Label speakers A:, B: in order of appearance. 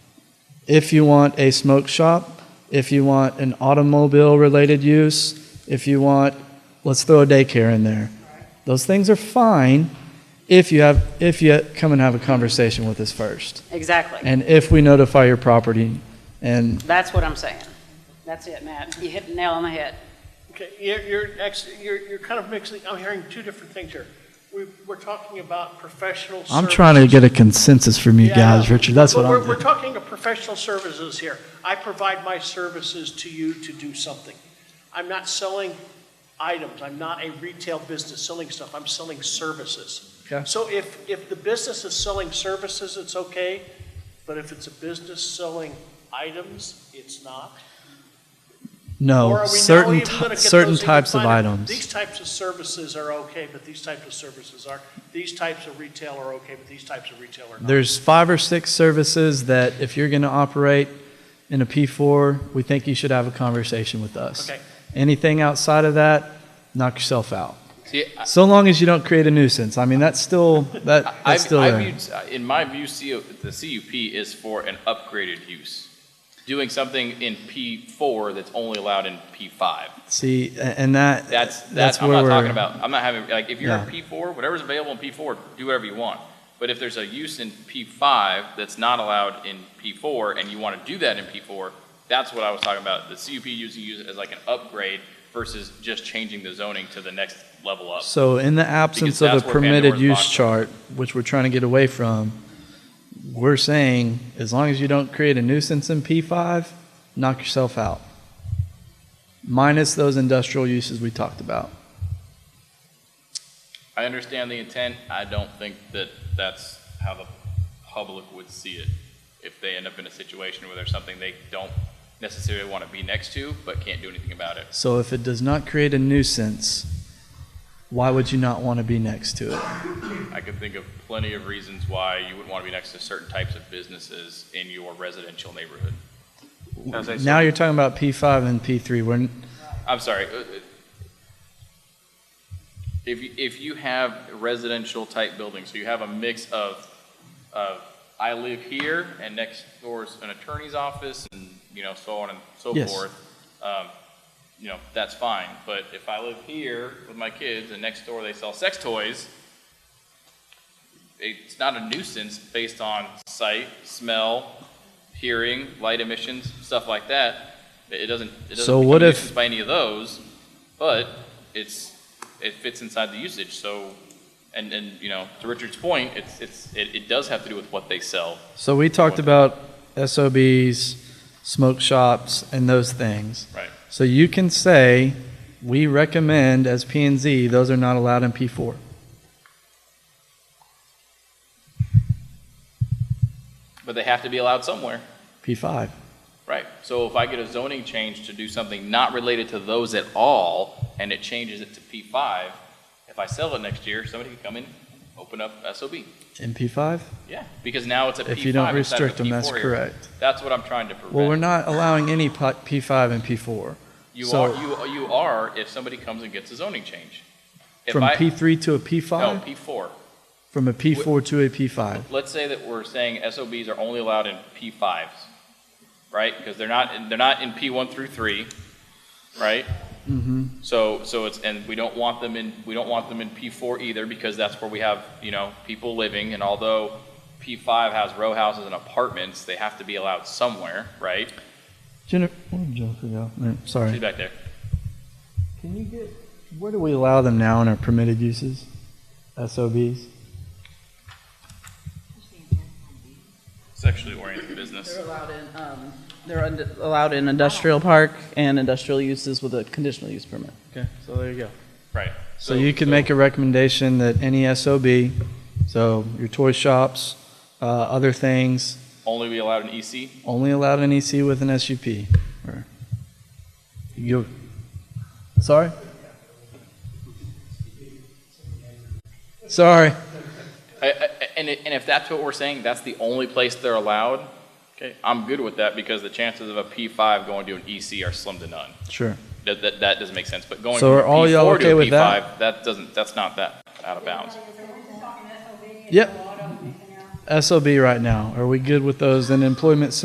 A: if you want a smoke shop, if you want an automobile related use, if you want, let's throw a daycare in there. Those things are fine if you have if you come and have a conversation with us first,
B: Exactly.
A: and if we notify your property, and
B: That's what I'm saying. That's it, Matt. You hit the nail on the head.
C: Okay, you're, you're, ex- you're, you're kind of mixing, I'm hearing two different things here. We, we're talking about professional services.
A: I'm trying to get a consensus from you
C: Yeah,
A: guys,
C: yeah.
A: Richard. That's
C: But
A: what I'm.
C: we're, we're talking of professional services here. I provide my services to you to do something. I'm not selling items. I'm not a retail business selling stuff. I'm selling services.
A: Okay.
C: So if, if the business is selling services, it's okay, but if it's a business selling items, it's not. Or
A: No,
C: are we now
A: certain
C: even gonna
A: ty-
C: get
A: certain
C: those even
A: types of
C: finer?
A: items.
C: These types of services are okay, but these types of services are, these types of retail are okay, but these types of retail are not.
A: There's five or six services that if you're going to operate in a P4, we think you should have a conversation with us.
C: Okay.
A: Anything outside of that, knock yourself out.
D: See, I-
A: So long as you don't create a nuisance. I mean, that's still that
D: I,
A: that's still
D: I
A: there.
D: viewed, in my view, CO, the CUP is for an upgraded use. Doing something in P4 that's only allowed in P5.
A: See, a- and that
D: That's, that's, I'm
A: where
D: not
A: we're
D: talking about, I'm not having, like, if you're in
A: Yeah.
D: P4, whatever's available in P4, do whatever you want. But if there's a use in P5 that's not allowed in P4 and you want to do that in P4, that's what I was talking about. The CUP using use it as like an upgrade versus just changing the zoning to the next level up.
A: So in the absence
D: Because
A: of a
D: that's where
A: permitted
D: Pandora's
A: use
D: box is.
A: chart, which we're trying to get away from, we're saying as long as you don't create a nuisance in P5, knock yourself out. Minus those industrial uses we talked about.
D: I understand the intent. I don't think that that's how the public would see it. If they end up in a situation where there's something they don't necessarily want to be next to, but can't do anything about it.
A: So if it does not create a nuisance, why would you not want to be next to it?
D: I could think of plenty of reasons why you wouldn't want to be next to certain types of businesses in your residential neighborhood.
E: As I
A: Now
E: said,
A: you're talking about P5 and P3. We're, n-
D: I'm sorry. uh, uh, If, you- if you have residential type buildings, so you have a mix of, of, I live here and next door's an attorney's office and, you know, so on and so
A: Yes.
D: forth. Um, you know, that's fine. But if I live here with my kids and next door they sell sex toys, it's not a nuisance based on sight, smell, hearing, light emissions, stuff like that. It it doesn't, it doesn't
A: So
D: become
A: what
D: a
A: if-
D: nuisance by any of those, but it's, it fits inside the usage, so, and, and, you know, to Richard's point, it's, it's, it, it does have to do with what they sell.
A: so we talked about SOBs, smoke shops, and those things.
D: Right.
A: So you can say, we recommend as P and Z, those are not allowed in P4.
D: But they have to be allowed somewhere.
A: P5.
D: Right. So if I get a zoning change to do something not related to those at all, and it changes it to P five, if I sell it next year, somebody can come in, open up SOB.
A: In P5?
D: Yeah, because now it's a P five.
A: If you don't restrict them, that's correct.
D: That's what I'm trying to prevent.
A: Well, we're not allowing any po- P5 and P4.
D: You
A: so-
D: are, you, you are if somebody comes and gets a zoning change. If
A: From
D: I-
A: P3 to a
D: No,
A: P5?
D: P four.
A: From a P4 to a P5.
D: Let's say that we're saying SOBs are only allowed in P fives, right? Because they're not, they're not in P one through three, right?
A: Mm-hmm.
D: So, so it's, and we don't want them in, we don't want them in P4 either because that's where we have, you know, people living. And although P5 has row houses and apartments, they have to be allowed somewhere, right?
A: Jennifer, where'd Jennifer go? No,
D: She's
A: Sorry.
D: back there.
A: Can you get, where do we allow them now in our permitted uses? SOBs?
D: Sexually oriented business.
F: They're allowed in, um, they're und- allowed in industrial park and industrial uses with a conditional use permit.
A: Okay, so there you go.
D: Right.
A: So you can make a recommendation that any SOB, so your toy shops, uh, other things,
D: Only be allowed in E EC?
A: only allowed an EC with an SUP. or- You, sorry? Sorry.
D: I- I- And, i- and if that's what we're saying, that's the only place they're allowed, okay, I'm good with that because the chances of a P5 going to an EC are slim to none.
A: Sure.
D: That, that, that doesn't make sense, but going
A: So
D: from
A: are all y'all
D: P4 to
A: okay
D: a
A: with that?
D: P5, that doesn't, that's not that out of bounds.
A: Yep. SOB right now. Are we good with those? And employment